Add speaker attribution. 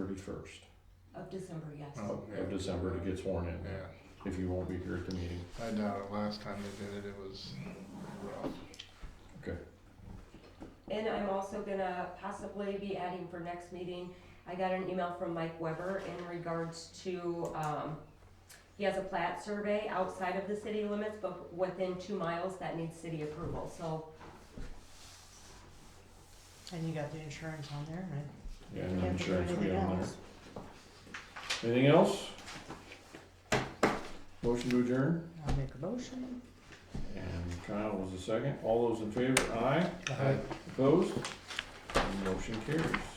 Speaker 1: thirty-first
Speaker 2: of December, yes.
Speaker 3: Oh, yeah.
Speaker 1: of December, it gets worn in,
Speaker 3: Yeah,
Speaker 1: if you won't be here at the meeting.
Speaker 3: I doubt it. Last time they did it, it was rough.
Speaker 2: And I'm also gonna possibly be adding for next meeting, I got an email from Mike Weber in regards to, um, he has a plat survey outside of the city limits, but within two miles that needs city approval, so
Speaker 4: And you got the insurance on there, right?
Speaker 1: Yeah,
Speaker 4: You
Speaker 1: and
Speaker 4: have to do
Speaker 1: insurance will be
Speaker 4: anything
Speaker 1: on
Speaker 4: else.
Speaker 1: there. Anything else? Motion to adjourn,
Speaker 4: I'll make a motion.
Speaker 1: and Kyle was the second, all those in favor, aye, opposed, And motion carries.